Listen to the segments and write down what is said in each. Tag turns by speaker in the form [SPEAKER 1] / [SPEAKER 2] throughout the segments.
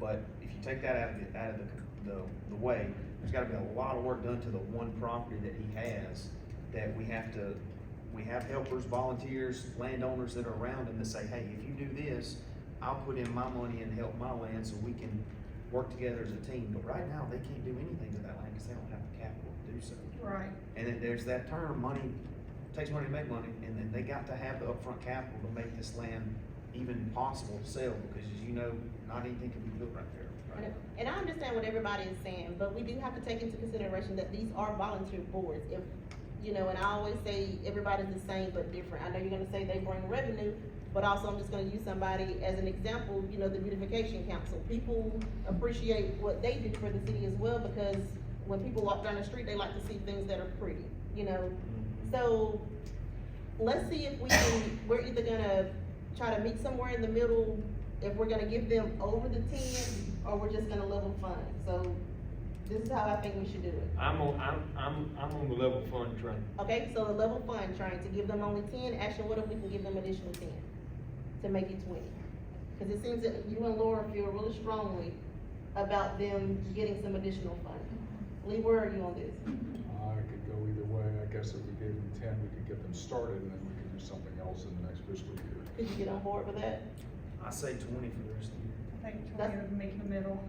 [SPEAKER 1] But if you take that out of the, out of the, the, the way, there's gotta be a lot of work done to the one property that he has that we have to, we have helpers, volunteers, landowners that are around him to say, hey, if you do this, I'll put in my money and help my land so we can work together as a team. But right now, they can't do anything with that land because they don't have the capital to do so.
[SPEAKER 2] Right,
[SPEAKER 1] And then there's that term, money, takes money to make money, and then they got to have the upfront capital to make this land even possible to sell, because as you know, not anything can be built right there. right?
[SPEAKER 3] And- And I understand what everybody is saying, but we do have to take into consideration that these are volunteer boards. If, you know, and I always say everybody's the same but different. I know you're gonna say they bring revenue, but also I'm just gonna use somebody as an example, you know, the beautification council. People appreciate what they do for the city as well because when people walk down the street, they like to see things that are pretty, you know? So, let's see if we can, we're either gonna try to meet somewhere in the middle, if we're gonna give them over the ten, or we're just gonna level fund, so this is how I think we should do it.
[SPEAKER 4] I'm on, I'm, I'm, I'm on the level fund train.
[SPEAKER 3] Okay, so the level fund, trying to give them only ten, actually, what if we can give them additional ten to make it twenty? Cause it seems that you and Laura feel really strongly about them getting some additional funding. Lee, where are you on this?
[SPEAKER 5] I could go either way, I guess if we gave them ten, we could get them started, and then we could do something else in the next fiscal year.
[SPEAKER 3] Could you get on board with that?
[SPEAKER 1] I say twenty for the rest of the year.
[SPEAKER 2] I think twenty would make the middle.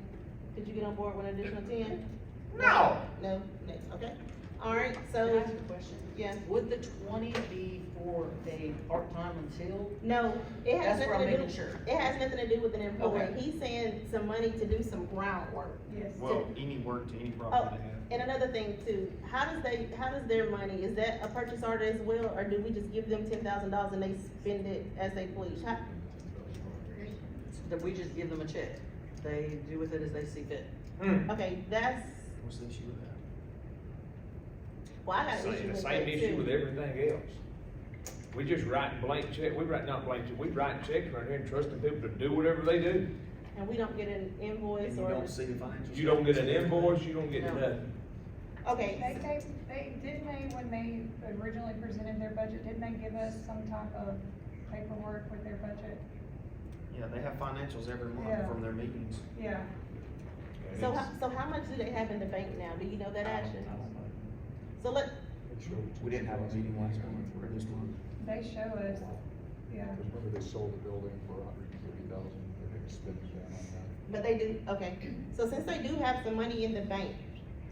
[SPEAKER 3] Could you get on board with an additional ten?
[SPEAKER 1] No.
[SPEAKER 3] No, next, okay. All right,
[SPEAKER 6] Can I
[SPEAKER 3] so,
[SPEAKER 6] ask a question?
[SPEAKER 3] yeah,
[SPEAKER 6] Would the twenty be for a part-time until?
[SPEAKER 3] no, it has
[SPEAKER 6] That's where I'm
[SPEAKER 3] nothing to
[SPEAKER 6] making
[SPEAKER 3] do,
[SPEAKER 6] sure.
[SPEAKER 3] it has nothing to do with an employee.
[SPEAKER 6] Okay.
[SPEAKER 3] He's saying some money to do some groundwork.
[SPEAKER 2] Yes.
[SPEAKER 1] Well, any work to any property they
[SPEAKER 3] And another thing too, how does they, how does their money, is that a purchase order as well, or do we just give them ten thousand dollars and they spend it as they please? How,
[SPEAKER 6] That we just give them a check? They do with it as they see fit?
[SPEAKER 4] Hmm.
[SPEAKER 3] okay, that's,
[SPEAKER 1] have. What's the issue with that?
[SPEAKER 3] well, I got an issue
[SPEAKER 4] Same,
[SPEAKER 3] with
[SPEAKER 4] same
[SPEAKER 3] that,
[SPEAKER 4] issue
[SPEAKER 3] too.
[SPEAKER 4] with everything else. We just writing blank check, we write, not blank check, we write checks right here and trusting people to do whatever they do.
[SPEAKER 3] And we don't get an
[SPEAKER 1] And
[SPEAKER 3] invoice
[SPEAKER 1] you
[SPEAKER 3] or,
[SPEAKER 1] don't see the financial.
[SPEAKER 4] You don't get an
[SPEAKER 1] statements.
[SPEAKER 4] invoice, you don't get
[SPEAKER 6] No.
[SPEAKER 4] nothing.
[SPEAKER 2] They
[SPEAKER 3] okay,
[SPEAKER 2] gave, they, didn't they, when they originally presented their budget, didn't they give us some type of paperwork with their budget?
[SPEAKER 1] Yeah, they have financials every month
[SPEAKER 2] Yeah.
[SPEAKER 1] from their meetings.
[SPEAKER 2] Yeah,
[SPEAKER 3] so how, so how much do they have in the bank now? Do you know that
[SPEAKER 1] I
[SPEAKER 3] action?
[SPEAKER 1] don't- I don't know.
[SPEAKER 3] So let,
[SPEAKER 5] It's over
[SPEAKER 1] We didn't have a meeting last month or this month.
[SPEAKER 2] they show us, yeah.
[SPEAKER 5] Because remember they sold the building for a hundred and thirty thousand, they're gonna spend it down on that.
[SPEAKER 3] But they do, okay, so since they do have some money in the bank,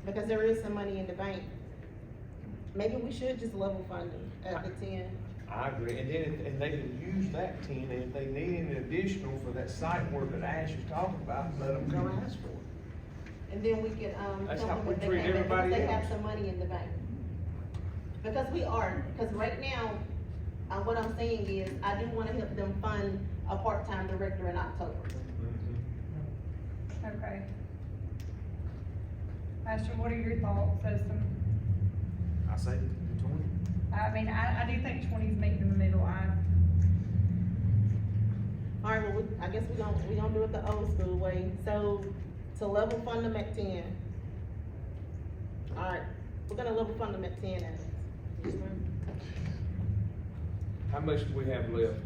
[SPEAKER 3] because there is some money in the bank, maybe we should just level fund them at the ten.
[SPEAKER 4] I agree, and then, if- and they can use that ten, and if they need an additional for that site work that Ash is talking about, let them come ask for it.
[SPEAKER 3] And then we could, um,
[SPEAKER 4] That's
[SPEAKER 3] tell
[SPEAKER 4] how
[SPEAKER 3] them
[SPEAKER 4] we
[SPEAKER 3] if they
[SPEAKER 4] treat
[SPEAKER 3] can't, because
[SPEAKER 4] everybody
[SPEAKER 3] they have
[SPEAKER 4] else.
[SPEAKER 3] some money in the bank. Because we are, because right now, uh, what I'm saying is, I do wanna help them fund a part-time director in October.
[SPEAKER 4] Mm-hmm.
[SPEAKER 2] Okay. Pastor, what are your thoughts as some,
[SPEAKER 1] I say twenty.
[SPEAKER 2] I mean, I, I do think twenty's making the middle, I,
[SPEAKER 3] All right, well, we, I guess we don't, we don't do it the old school way, so to level fund them at ten. All right, we're gonna level fund them at ten, Alex.
[SPEAKER 4] How much do we have left?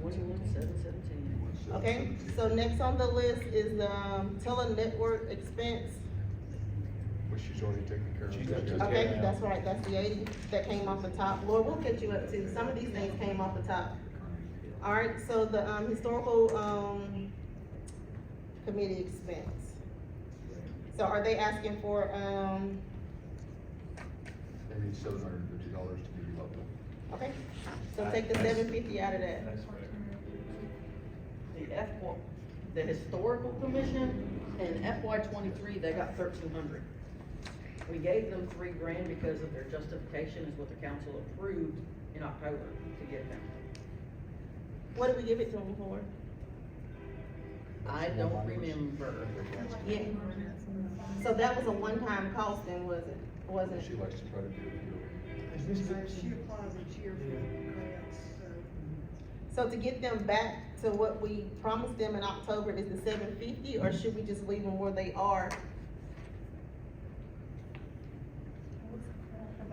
[SPEAKER 6] Twenty-one, seven, seventeen.
[SPEAKER 3] Okay, so next on the list is the um, tele-network expense.
[SPEAKER 5] Which she's already taken care of.
[SPEAKER 4] She's already taken care
[SPEAKER 3] Okay,
[SPEAKER 4] Yeah.
[SPEAKER 3] that's right, that's the eighty that came off the top. Lord, we'll catch you up too. Some of these things came off the top. All right, so the, um, historical, um, committee expense. So are they asking for, um,
[SPEAKER 5] They need seven hundred and fifty dollars to be level.
[SPEAKER 3] okay, so take the seven fifty out of that.
[SPEAKER 4] That's fair.
[SPEAKER 6] The F, the historical commission, in FY twenty-three, they got thirteen hundred. We gave them three grand because of their justification is what the council approved in October to give them.
[SPEAKER 3] What did we give it to them for?
[SPEAKER 6] I don't remember.
[SPEAKER 3] Yeah. So that was a one-time cost then, was it? Wasn't
[SPEAKER 5] She
[SPEAKER 3] it?
[SPEAKER 5] likes to try to do it year over year.
[SPEAKER 7] She applies each year for grants, so.
[SPEAKER 3] So to get them back to what we promised them in October is the seven fifty, or should we just leave them where they are?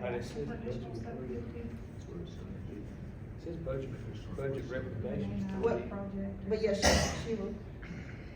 [SPEAKER 4] But it's-
[SPEAKER 2] Additional stuff we could do.
[SPEAKER 5] That's what it said.
[SPEAKER 4] It says budget, budget recommendation.
[SPEAKER 3] What-
[SPEAKER 2] Project.
[SPEAKER 3] But yeah, she, she will,